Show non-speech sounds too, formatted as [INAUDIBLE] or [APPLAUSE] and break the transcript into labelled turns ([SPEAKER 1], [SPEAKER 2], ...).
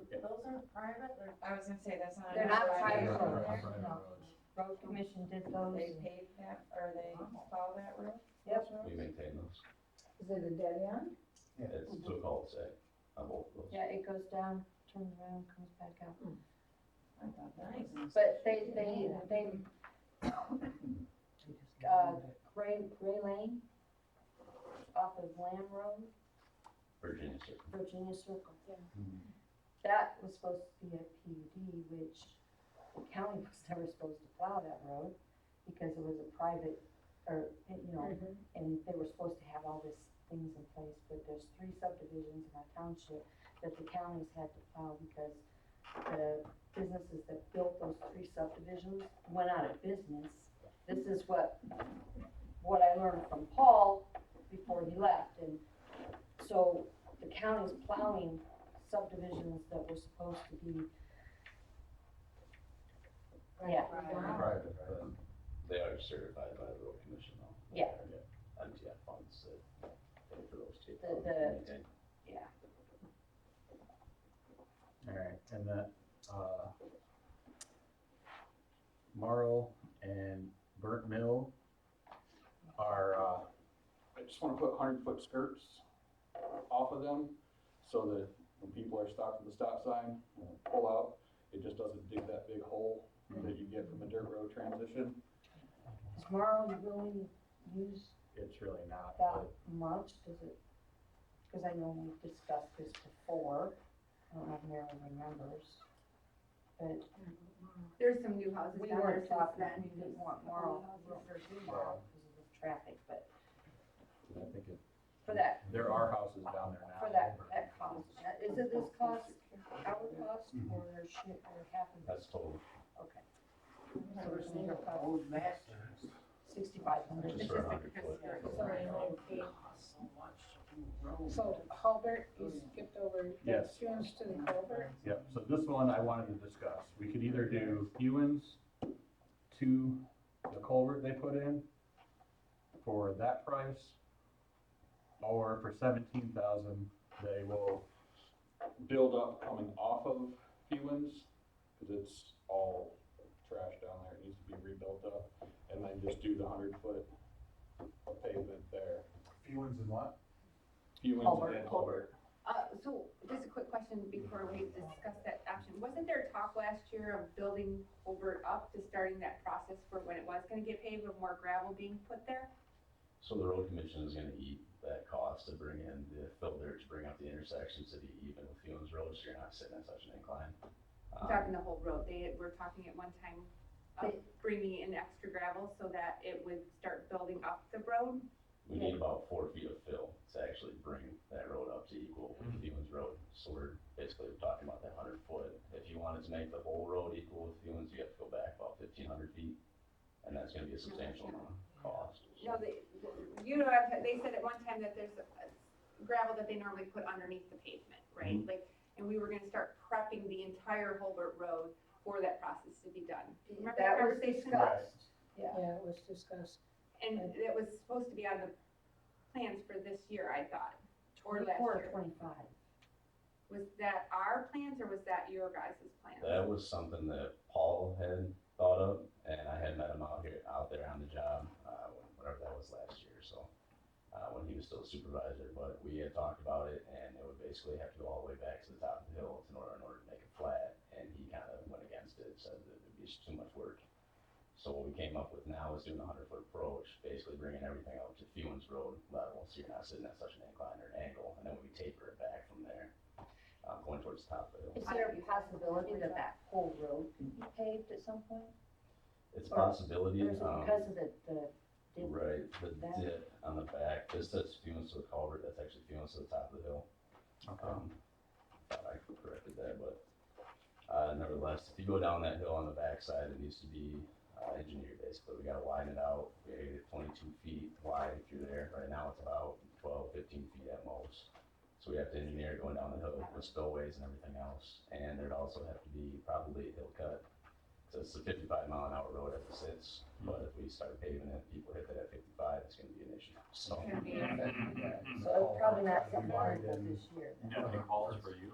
[SPEAKER 1] isn't private, they're,
[SPEAKER 2] I was gonna say, that's not.
[SPEAKER 1] They're
[SPEAKER 2] a
[SPEAKER 1] not
[SPEAKER 2] private
[SPEAKER 1] private
[SPEAKER 2] road.
[SPEAKER 1] roads.
[SPEAKER 3] Not private
[SPEAKER 1] No.
[SPEAKER 3] roads.
[SPEAKER 1] road commission did
[SPEAKER 2] They
[SPEAKER 1] those.
[SPEAKER 2] paved that, or they plow that road?
[SPEAKER 1] Yep.
[SPEAKER 4] We maintain those.
[SPEAKER 1] Is it a dead end?
[SPEAKER 4] It's two cul-de-sac on both of those.
[SPEAKER 1] Mm-hmm. Yeah, it goes down, turns around, comes back up.
[SPEAKER 2] I thought that was.
[SPEAKER 1] But they, they, they, uh, Gray, Gray Lane off of Lamb Road,
[SPEAKER 4] Virginia Circle.
[SPEAKER 1] Virginia Circle.
[SPEAKER 3] Mhm.
[SPEAKER 1] That was supposed to be a PUD, which the county was [LAUGHS] never supposed to plow that road because it was a private, or, you know, and they were supposed to have all these things in place, but there's three subdivisions in our township that the counties had to plow because the businesses that built those three subdivisions went out of business. This is what, what I learned from Paul before he left, and so the county's plowing subdivisions that were supposed to be, yeah.
[SPEAKER 2] Wow.
[SPEAKER 4] Private, but they are certified by the road commission though.
[SPEAKER 1] Yeah.
[SPEAKER 4] MTF uh, funds that pay for those two.
[SPEAKER 1] The- the-
[SPEAKER 4] Maintain.
[SPEAKER 3] Alright, and that, uh, Marl and Burnt Mill are, uh,
[SPEAKER 5] I just wanna put hundred foot skirts off of them, so that when people are stopped at the stop sign, when they pull out, it just doesn't dig that big hole that you get from a dirt road transition.
[SPEAKER 1] Is Marl really used
[SPEAKER 3] it's really not,
[SPEAKER 1] that
[SPEAKER 3] but
[SPEAKER 1] much, does it? Cause I know we've discussed this before, I don't know if Mary remembers, but
[SPEAKER 6] There's some new houses
[SPEAKER 1] we
[SPEAKER 6] down there
[SPEAKER 1] weren't
[SPEAKER 6] since
[SPEAKER 1] talking,
[SPEAKER 6] then.
[SPEAKER 1] we didn't want Marl,
[SPEAKER 6] Laurel.
[SPEAKER 1] we were doing Marl because of the traffic, but
[SPEAKER 3] I think it,
[SPEAKER 1] for that,
[SPEAKER 3] there are houses down there now.
[SPEAKER 1] for that, that cost, Now, is it this cost, our cost, or shit, or half of
[SPEAKER 4] That's
[SPEAKER 1] it?
[SPEAKER 4] total.
[SPEAKER 1] Okay. So we're saying it costs sixty-five hundred.
[SPEAKER 4] Just for a hundred foot.
[SPEAKER 7] Sorry, no, okay. So Halbert, you skipped over. you
[SPEAKER 3] Yes.
[SPEAKER 7] Changed to the Halbert.
[SPEAKER 3] Yep, so this one I wanted to discuss. We could either do Hewens to the culvert they put in for that price, or for seventeen thousand, they will,
[SPEAKER 5] Build up coming off of Hewens, cause it's all trash down there, it needs to be rebuilt up, and then just do the hundred foot of pavement there.
[SPEAKER 3] Hewens and what?
[SPEAKER 5] Hewens and Culvert.
[SPEAKER 6] Uh, so just a quick question before we discuss that option. Wasn't there talk last year of building Holbert up to starting that process for when it was gonna get paved with more gravel being put there?
[SPEAKER 4] So the road commission is gonna eat that cost to bring in the filter to bring up the intersections to be even with Hewens Road, so you're not sitting on such an incline.
[SPEAKER 6] I'm
[SPEAKER 4] Um,
[SPEAKER 6] Talking the whole road. They were talking at one time of
[SPEAKER 1] They-
[SPEAKER 6] bringing in extra gravel so that it would start building up the road.
[SPEAKER 4] We need about four feet of fill to actually bring that road up to equal with Hewens Road. So we're basically talking about that hundred foot. If you wanted to make the whole road equal with Hewens, you have to go back about fifteen hundred feet. And that's gonna be a substantial amount of cost.
[SPEAKER 6] No, they, you know, I've- they said at one time that there's uh, gravel that they normally put underneath the pavement, right? Like, and we were gonna start prepping the entire Holbert Road for that process to be done. Do you remember that
[SPEAKER 1] That was
[SPEAKER 6] conversation?
[SPEAKER 1] discussed, yeah.
[SPEAKER 7] Yeah, it was discussed.
[SPEAKER 6] And it was supposed to be on the plans for this year, I thought, or last
[SPEAKER 1] Twenty-four or
[SPEAKER 6] year.
[SPEAKER 1] Twenty-five.
[SPEAKER 6] Was that our plans or was that your guys' plans?
[SPEAKER 4] That was something that Paul had thought of, and I had met him out here, out there on the job, uh, whatever that was last year, so. Uh, when he was still supervisor, but we had talked about it, and it would basically have to go all the way back to the top of the hill in order, in order to make it flat, and he kind of went against it, said that it'd be just too much work. So what we came up with now is doing a hundred foot approach, basically bringing everything up to Fewens Road level, so you're not sitting at such an incline or an angle, and then we taper it back from there, um, going towards the top of the hill.
[SPEAKER 1] Is there a possibility that that whole road can be paved at some point?
[SPEAKER 4] It's a
[SPEAKER 1] Or-
[SPEAKER 4] possibility,
[SPEAKER 1] Or is it
[SPEAKER 4] um,
[SPEAKER 1] because of the, the, dip?
[SPEAKER 4] right, the
[SPEAKER 1] That-
[SPEAKER 4] dip on the back, this says fumes to the culvert, that's actually fumes to the top of the hill. Um, thought I corrected that, but, uh, nevertheless, if you go down that hill on the backside, it needs to be, uh, engineered basically, we gotta widen it out, we gotta get it twenty-two feet wide through there, right now it's about 12, 15 feet at most. So we have to engineer it going down the hill with spillways and everything else, and there'd also have to be probably a hill cut so it's a fifty-five mile an hour road as it sits, but if we start paving it, people hit that at fifty-five, it's gonna be an issue, so.
[SPEAKER 6] It's gonna be-
[SPEAKER 1] so it's probably not something this year. then.
[SPEAKER 3] Yeah,
[SPEAKER 5] calls for you.